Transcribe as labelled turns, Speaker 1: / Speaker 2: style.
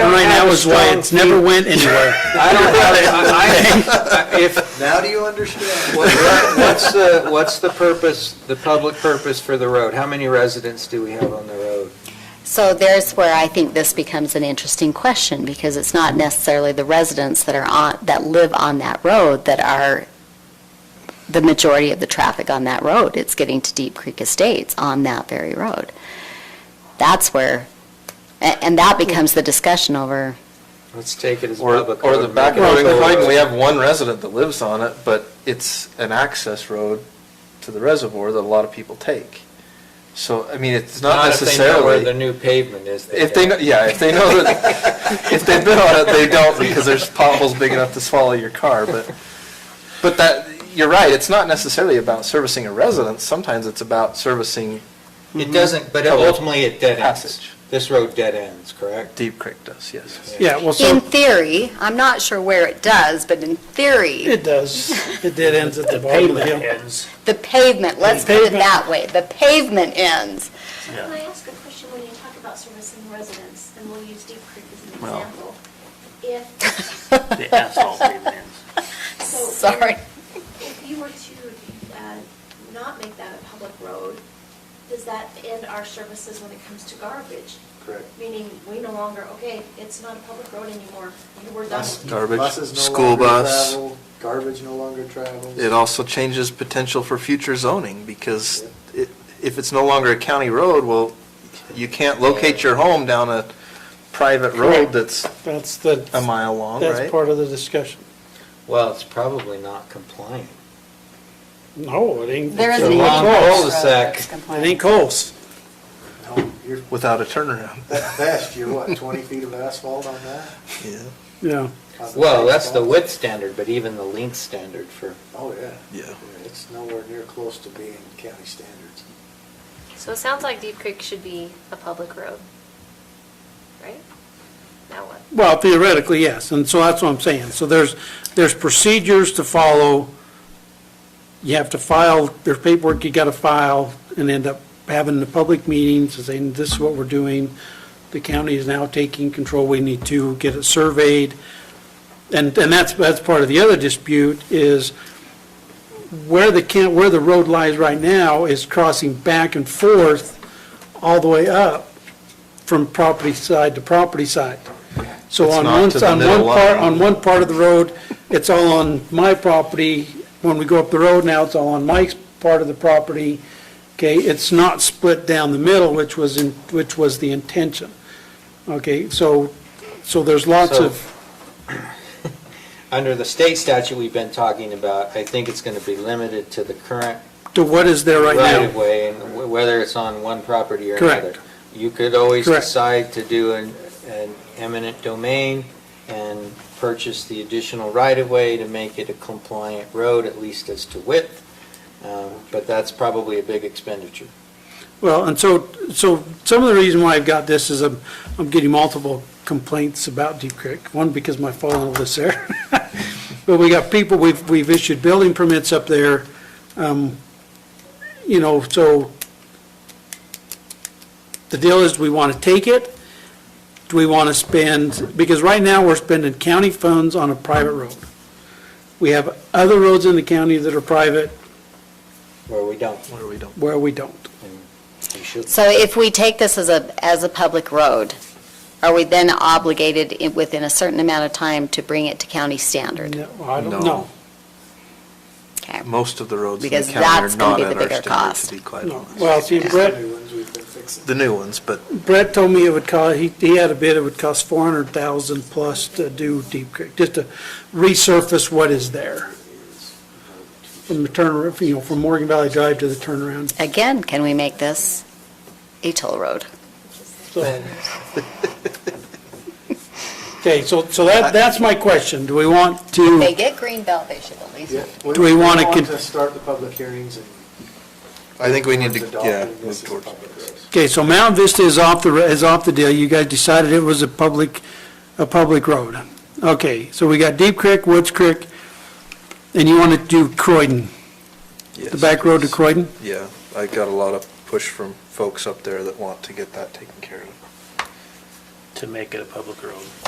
Speaker 1: have
Speaker 2: that
Speaker 1: a
Speaker 2: was why
Speaker 1: strong
Speaker 2: it's never
Speaker 1: feeling.
Speaker 2: went anywhere.
Speaker 1: I don't have, I, I, if,
Speaker 3: Now do you understand?
Speaker 1: What- What's the, what's the purpose, the public purpose for the road? How many residents do we have on the road?
Speaker 4: So there's where I think this becomes an interesting question, because it's not necessarily the residents that are on, that live on that road that are the majority of the traffic on that road. It's getting to Deep Creek Estates on that very road. That's where, a- and that becomes the discussion over,
Speaker 1: Let's take it as
Speaker 5: Or,
Speaker 1: public.
Speaker 5: or the
Speaker 1: road,
Speaker 5: back
Speaker 1: make
Speaker 5: end
Speaker 1: it
Speaker 5: of
Speaker 1: a
Speaker 5: the
Speaker 1: public
Speaker 5: Pike,
Speaker 1: road.
Speaker 5: we have one resident that lives on it, but it's an access road to the reservoir that a lot of people take. So, I mean, it's not
Speaker 1: if they know Where the
Speaker 5: necessarily,
Speaker 1: new pavement is.
Speaker 5: if they, know,
Speaker 1: don't.
Speaker 5: yeah, if they know that, if they've been on it, they don't because there's potholes big enough to swallow your car, but, but that, you're right, it's not necessarily about servicing a residence, sometimes it's about servicing
Speaker 1: It doesn't, but
Speaker 5: Public
Speaker 1: ultimately it dead ends.
Speaker 5: passage.
Speaker 1: This road dead ends, correct?
Speaker 5: Deep Creek does, yes.
Speaker 2: Yeah, well,
Speaker 4: in
Speaker 2: so,
Speaker 4: theory, I'm not sure where it does, but in theory,
Speaker 2: it does. It did ends at the bottom of the hill.
Speaker 4: the pavement, let's put it
Speaker 2: Pavement.
Speaker 4: that way, the pavement ends.
Speaker 6: Can I ask a question when you talk about servicing residents, and we'll use Deep Creek as an
Speaker 5: Well.
Speaker 6: example? If,
Speaker 7: The asphalt pavement.
Speaker 6: so. if-
Speaker 4: Sorry.
Speaker 6: If you were to uh, not make that a public road, does that end our services when it comes to garbage?
Speaker 1: Correct.
Speaker 6: Meaning, we no longer, okay, it's not a public road anymore, You we're done.
Speaker 3: Bus-
Speaker 5: Garbage,
Speaker 3: buses no
Speaker 5: school
Speaker 3: longer
Speaker 5: bus.
Speaker 3: travel, Garbage no longer travels.
Speaker 5: It also changes potential for future zoning, because it- if it's no longer a county road, well, you can't locate your home down a private road that's
Speaker 2: That's the,
Speaker 5: a mile long,
Speaker 2: that's
Speaker 5: right?
Speaker 2: part of the discussion.
Speaker 1: Well, it's probably not compliant.
Speaker 2: No, it ain't.
Speaker 4: There
Speaker 1: It's
Speaker 4: is
Speaker 1: a
Speaker 4: an
Speaker 1: long
Speaker 2: It
Speaker 1: cul-de-sac.
Speaker 2: ain't close.
Speaker 3: No, you're,
Speaker 5: Without a turnaround.
Speaker 3: at best, you're what, 20 feet of asphalt on that?
Speaker 5: Yeah,
Speaker 2: Yeah.
Speaker 3: On the
Speaker 1: Well,
Speaker 3: big
Speaker 1: that's the
Speaker 3: stuff?
Speaker 1: width standard, but even the length standard for,
Speaker 3: Oh, yeah.
Speaker 5: yeah.
Speaker 3: It's nowhere near close to being county standards.
Speaker 7: So it sounds like Deep Creek should be a public road, right? Now what?
Speaker 2: Well, theoretically, yes, and so that's what I'm saying. So there's, there's procedures to follow. You have to file, there's paperwork you gotta file, and end up having the public meetings, and saying, this is what we're doing. The county is now taking control, we need to get it surveyed. And, and that's, that's part of the other dispute is where the, can- where the road lies right now is crossing back and forth all the way up from property side to property side. So
Speaker 5: It's
Speaker 2: on
Speaker 5: not
Speaker 2: one,
Speaker 5: to the
Speaker 2: on one
Speaker 5: middle
Speaker 2: part,
Speaker 5: line.
Speaker 2: on one part of the road, it's all on my property. When we go up the road now, it's all on Mike's part of the property. Okay, it's not split down the middle, which was, in- which was the intention. Okay, so, so there's lots
Speaker 1: So-
Speaker 2: of.
Speaker 1: under the state statute we've been talking about, I think it's going to be limited to the current
Speaker 2: to what is there right
Speaker 1: right of
Speaker 2: now.
Speaker 1: way, and wh- whether it's on one property or
Speaker 2: Correct.
Speaker 1: another. You could always
Speaker 2: Correct.
Speaker 1: decide to do an, an eminent domain and purchase the additional right of way to make it a compliant road, at least as to width. Uh, But that's probably a big expenditure.
Speaker 2: Well, and so, so some of the reason why I've got this is I'm, I'm getting multiple complaints about Deep Creek. One, because my father lives there. But we got people, we've, we've issued building permits up there. Um, You know, so the deal is, do we want to take it? Do we want to spend, because right now we're spending county funds on a private road. We have other roads in the county that are private
Speaker 1: Where we don't,
Speaker 5: Where we don't.
Speaker 2: where we don't.
Speaker 1: we should.
Speaker 4: So if we take this as a, as a public road, are we then obligated i- within a certain amount of time to bring it to county standard?
Speaker 2: No, I don't
Speaker 5: No.
Speaker 2: know.
Speaker 4: Okay.
Speaker 5: Most of the roads in the
Speaker 4: Because
Speaker 5: county are
Speaker 4: that's gonna
Speaker 5: not
Speaker 4: be the
Speaker 5: at our
Speaker 4: bigger
Speaker 5: standard,
Speaker 4: cost.
Speaker 5: to be quite
Speaker 2: No.
Speaker 5: honest.
Speaker 2: Well, see, Brett,
Speaker 3: New ones we've been fixing.
Speaker 5: The new ones, but
Speaker 2: Brett told me it would cost, he, he had a bid, it would cost four hundred thousand plus to do Deep Creek, just to resurface what is there. From the turn, you know, from Morgan Valley Drive to the turnaround,
Speaker 4: Again, can we make this a toll road?
Speaker 2: so. Okay, so, so that, that's my question. Do we want to?
Speaker 4: They get green belt, they should at least.
Speaker 3: Yeah,
Speaker 2: Do we wanna
Speaker 3: want
Speaker 2: con-
Speaker 3: to start the public hearings and.
Speaker 5: I think we need to,
Speaker 3: Adopting
Speaker 5: yeah,
Speaker 3: this
Speaker 5: move
Speaker 3: as a
Speaker 5: towards.
Speaker 3: public road.
Speaker 2: Okay, so Mount Vista is off the, is off the deal. You guys decided it was a public, a public road. Okay, so we got Deep Creek, Woods Creek, and you want to do Croydon, the
Speaker 5: Yes.
Speaker 2: back road to Croydon?
Speaker 5: Yeah, I got a lot of push from folks up there that want to get that taken care of.
Speaker 7: To make it a public road.